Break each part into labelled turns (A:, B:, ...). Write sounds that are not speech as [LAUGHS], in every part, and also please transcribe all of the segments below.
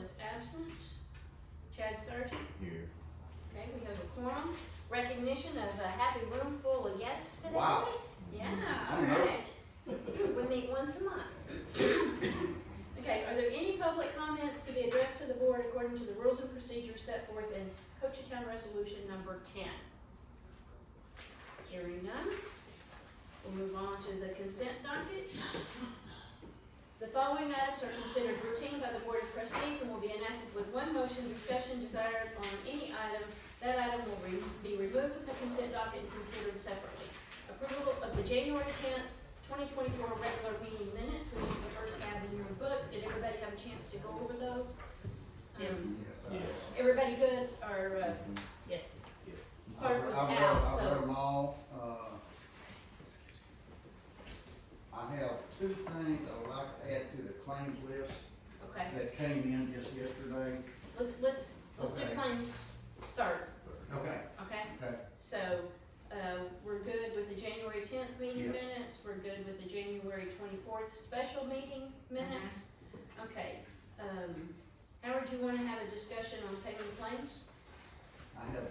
A: is absent. Chad Sargent,
B: Here.
A: okay, we have a quorum. Recognition of a happy room full of yes today.
C: Wow.
A: Yeah,
C: I
A: all
C: don't know.
A: right. We meet once a month. [COUGHS] Okay, are there any public comments to be addressed to the board according to the rules and procedures set forth in Coachella Resolution Number ten? Hearing none, we'll move on to the consent docket. The following items are considered routine by the Board of Trustees and will be enacted with one motion discussion desired on any item. That item will re- be removed from the consent docket and considered separately. Approval of the January tenth, 2024 regular meeting minutes, which is the first tab in your book. Did everybody have a chance to go over those?
D: Yes.
A: Um,
B: Yes.
A: Everybody good, or uh,
D: Yes.
A: Clerk was
C: I've read-
A: out,
C: I've
A: so-
C: read them all, uh. I have two things I would like to add to the claims list
A: okay,
C: that came in just yesterday.
A: let's, let's, let's do
C: Okay.
A: claims third,
C: Okay.
A: okay?
C: Okay,
A: So, uh, we're good with the January tenth meeting
C: Yes.
A: minutes, we're good with the January twenty-fourth special meeting minutes. Okay, um, Howard, you wanna have a discussion on paying the claims?
C: I have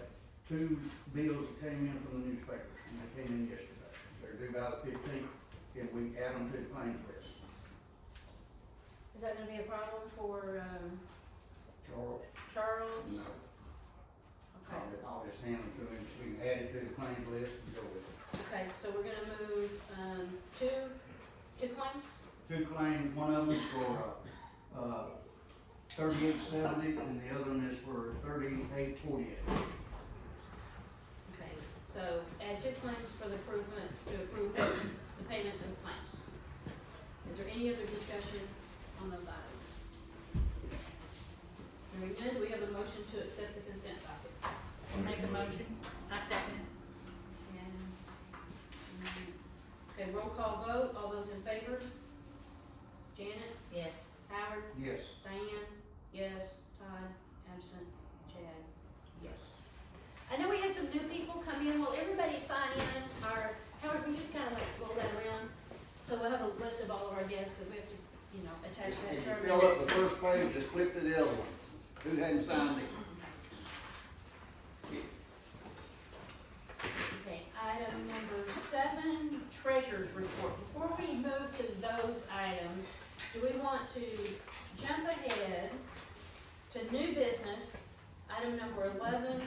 C: two bills that came in from the newspaper, and they came in yesterday. They're due by the fifteenth, and we add them to the claims list.
A: Is that gonna be a problem for, um,
C: Charles,
A: Charles?
C: no,
A: Okay.
C: I'll, I'll just hand them to him, we can add it to the claims list and go with it.
A: Okay, so we're gonna move, um, two, two claims?
C: Two claims, one of them for, uh, thirty-eight seventy, and the other one is for thirty-eight forty-eight.
A: Okay, so add two claims for the improvement, to approve the payment of claims. Is there any other discussion on those items? Very good, do we have a motion to accept the consent docket? Make a motion.
D: I second.
A: And, mm, Okay, roll call vote, all those in favor? Janet,
D: Yes.
A: Howard,
C: Yes,
A: Diane, yes. Todd, absent. Chad, yes. I know we had some new people come in. Will everybody sign in? Or, Howard, we just kind of like roll that around. So we'll have a list of all of our guests because we have to, you know, attach
C: if
A: that
C: if
A: to our
C: you fill up
A: minutes.
C: the first page, just flip to the other one. Who hadn't signed it?
A: Okay, item number seven, treasurer's report. Before we move to those items, do we want to jump ahead to new business, item number eleven,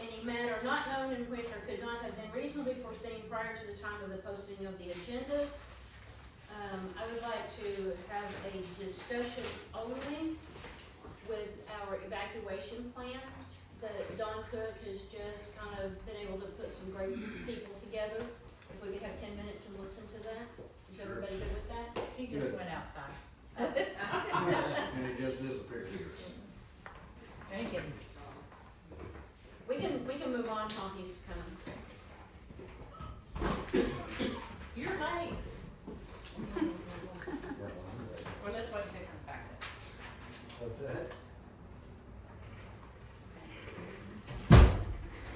A: any matter not known in which or could not have been reasonably foreseen prior to the time of the posting of the agenda? Um, I would like to have a discussion only with our evacuation plan that Don Cook has just kind of been able to put some great people together. If we could have ten minutes and listen to that, is
C: Sure.
A: everybody good with that?
D: He just went outside.
C: [LAUGHS] And it just disappeared.
D: Very good.
A: We can, we can move on while he's coming.
D: You're late. Well, let's wait till he comes back.
E: What's that?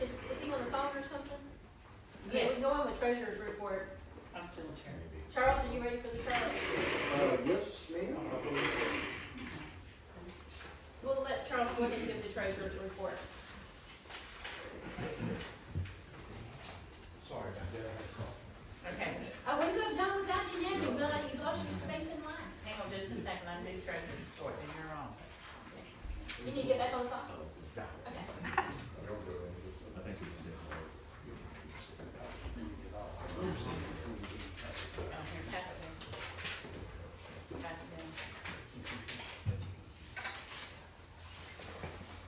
A: Is, is he on the phone or something? Okay,
D: Yes.
A: We go on with treasurer's report.
D: I'm still in chair.
A: Charles, are you ready for the Charles?
E: Uh, yes, ma'am, I believe so.
A: We'll let Charles go ahead and give the treasurer's report.
E: Sorry about that, I had a cough.
D: Okay,
A: Oh, we could have done without you now, you've, not- you've lost your space in line.
D: hang on just a second, I'm doing treasure report, and you're on.
A: You need to get back on the phone. Okay.
B: I think we can do it.
D: Oh, here, pass it down. Pass it down.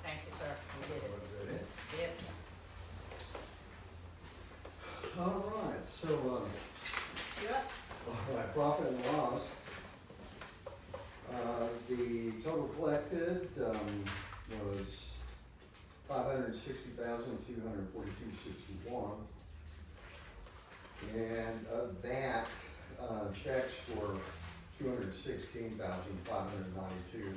D: Thank you, sir, you did it. Yep.
E: All right, so, uh,
A: You're up.
E: um, all right, profit and loss. Uh, the total collected, um, was five hundred sixty thousand, two hundred forty-two sixty-one. And of that, uh, checks were two hundred sixteen thousand, five hundred ninety-two,